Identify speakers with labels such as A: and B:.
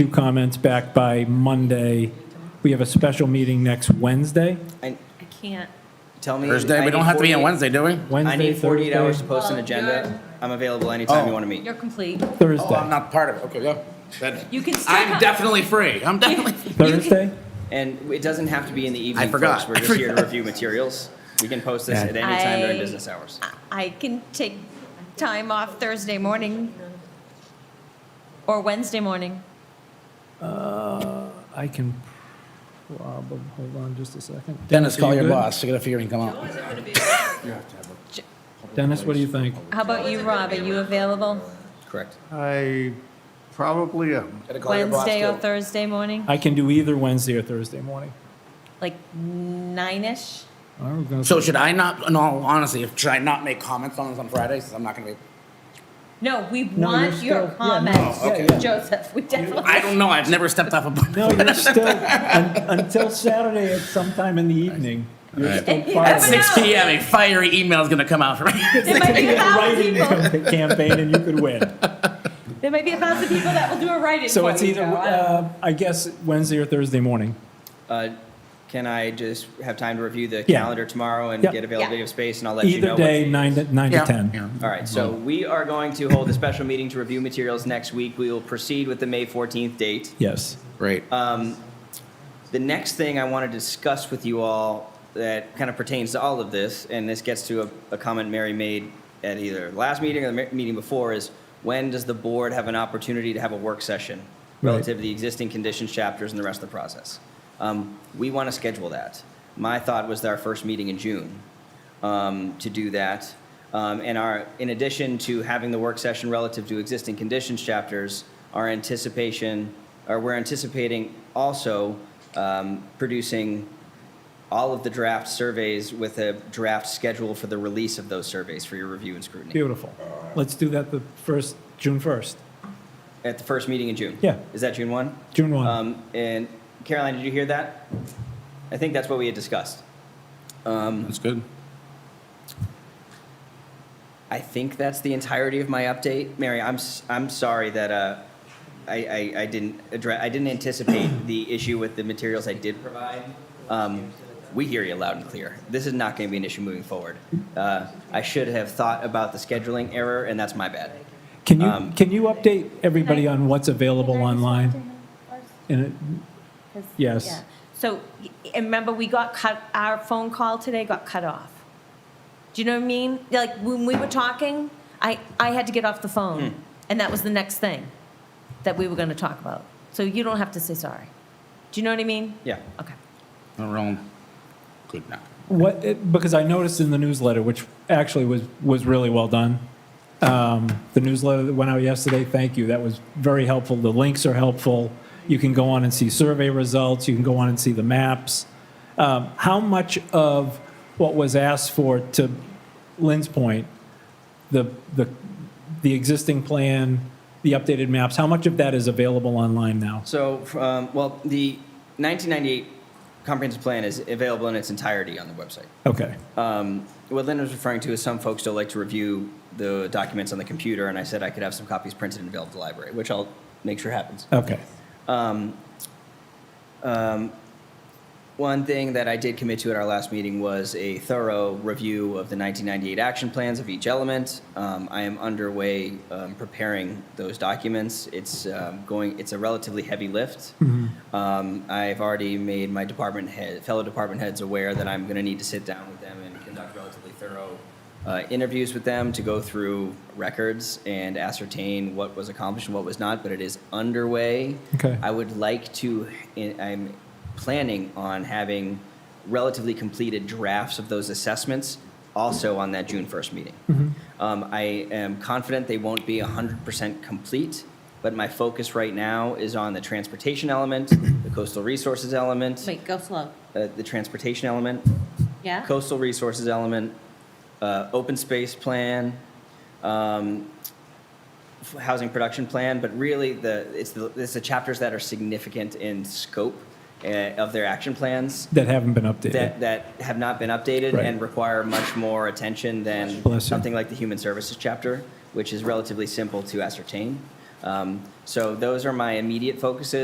A: two comments back by Monday. We have a special meeting next Wednesday.
B: I,
C: I can't.
B: tell me.
D: Thursday,
B: I
D: we
B: need
D: don't have to be on
B: 48
D: Wednesday, do we?
A: Wednesday,
B: I need 48 hours to
A: Thursday,
B: post an
C: Well,
B: agenda.
C: you're-
B: I'm available anytime you
D: Oh.
B: want to meet.
C: You're complete.
D: Oh, I'm
A: Thursday.
D: not part of it, okay, yeah. Then-
C: You can still
D: I'm
C: come-
D: definitely free, I'm definitely,
A: Thursday?
B: And it doesn't have to be in the evening.
D: forgot.
B: Folks. We're
D: I
B: just here to review materials. We can post this
D: Yeah.
B: at any time during
C: I-
B: business hours.
C: I can take time off Thursday morning or Wednesday morning.
A: Uh, I can probably, hold on just a second.
D: Dennis, call
A: are you
D: your
A: good?
D: boss, I gotta figure he can come out.
A: Dennis, what do you think?
C: How about you, Rob? Are you available
B: Correct.
E: I probably am.
D: Gotta call your boss,
C: Wednesday or
D: too.
C: Thursday morning?
A: I can do either Wednesday or Thursday morning.
C: Like nine-ish?
A: I was gonna
D: So
A: say-
D: should I not, in all honesty, should I not make comments on this on Friday, since I'm not gonna be?
C: No, we
A: you're
C: want your
A: still- yeah, no,
C: comments,
A: yeah, yeah.
C: Joseph. We
D: I
C: definitely,
D: don't know, I've never stepped off a.
A: No, you're still, un- until Saturday at sometime in the evening. You're still
C: Alright.
A: part
D: At
A: of
C: That's
A: the
C: it.
D: six P M, a fiery email is gonna come out for me.
C: there might be a thousand
A: writing
C: people,
A: campa- campaign and you could win.
C: there might be a thousand people that will do a write-in
A: So
C: for
A: it's
C: you,
A: either,
C: Joe. I don't-
A: uh, I guess, Wednesday or Thursday morning.
B: Uh, can I just have time to review the
A: Yeah.
B: calendar tomorrow and
A: Yep.
B: get availability
C: Yeah.
B: of space, and I'll let you know.
A: Either
B: what-
A: day, nine to, nine to
D: Yeah.
A: 10.
D: Yeah.
B: All right, so we are going to hold a special meeting to review materials next week. We will proceed with the May 14th date.
A: Yes.
D: Great.
B: The next thing I want to discuss with you all that kind of pertains to all of this, and this gets to a, a comment Mary made at either the last meeting or the me- meeting before, is when does the board have an opportunity to have a work session
A: Right.
B: relative to the existing conditions chapters and the rest of the process? Um, we want to schedule that. My thought was our first meeting in June um, to do that. Um, And our, in addition to having the work session relative to existing conditions chapters, our anticipation, or we're anticipating also um, producing all of the draft surveys with a draft schedule for the release of those surveys for your review and scrutiny
A: Beautiful. Let's do that the first, June 1st,
B: at the first meeting in June.
A: Yeah.
B: Is that June 1?
A: June 1.
B: Um, And Caroline, did you hear that? I think that's what we had discussed. Um,
D: That's good.
B: I think that's the entirety of my update. Mary, I'm, s- I'm sorry that uh, I, I, I didn't address, I didn't anticipate the issue with the materials I did provide. Um, we hear you loud and clear. This is not going to be an issue moving forward. Uh, I should have thought about the scheduling error, and that's my bad.
A: Can you,
B: um,
A: can you update everybody on what's available
C: Can I just talk to
A: online?
C: him first?
A: And it-
C: 'Cause-
A: Yes.
C: yeah. So, y- and remember, we got cut, our phone call today got cut off. Do you know what I mean? Like, when we were talking, I, I had to get off the phone, and that was the next thing that we were gonna talk about. So you don't have to say sorry. Do you know what I mean?
B: Yeah.
C: Okay.
D: We're all good now.
A: What, it- because I noticed in the newsletter, which actually was, was really well done, um, the newsletter that went out yesterday, thank you, that was very helpful. The links are helpful. You can go on and see survey results, you can go on and see the maps. Um, How much of what was asked for, to Lynn's point, the, the, the existing plan, the updated maps, how much of that is available online now?
B: So, um, well, the 1998 comprehensive plan is available in its entirety on the website.
A: Okay,
B: Um, what Lynn was referring to is some folks don't like to review the documents on the computer, and I said I could have some copies printed and available to the library, which I'll make sure happens.
A: okay.
B: One thing that I did commit to at our last meeting was a thorough review of the 1998 action plans of each element. Um, I am underway um, preparing those documents. It's um, going. It's a relatively heavy lift. Um, I've already made my department head, fellow department heads aware that I'm going to need to sit down with them and conduct relatively thorough uh, interviews with them to go through records and ascertain what was accomplished and what was not. But it is underway.
A: Okay.
B: I would like to, I'm planning on having relatively completed drafts of those assessments also on that June 1st meeting. Um, I am confident they won't be 100% complete, but my focus right now is on the transportation element, the coastal resources element,
C: Wait, go slow.
B: uh, the transportation element,
C: Yeah?
B: coastal resources element, uh, open space plan, um, f- housing production plan, but really the, it's the, it's the chapters that are significant in scope uh, of their action plans
A: That haven't been updated.
B: that, that have not been updated
A: Right.
B: and require much more attention than
A: Bless you.
B: something like the human services chapter, which is relatively simple to ascertain. Um, so those are my immediate focuses.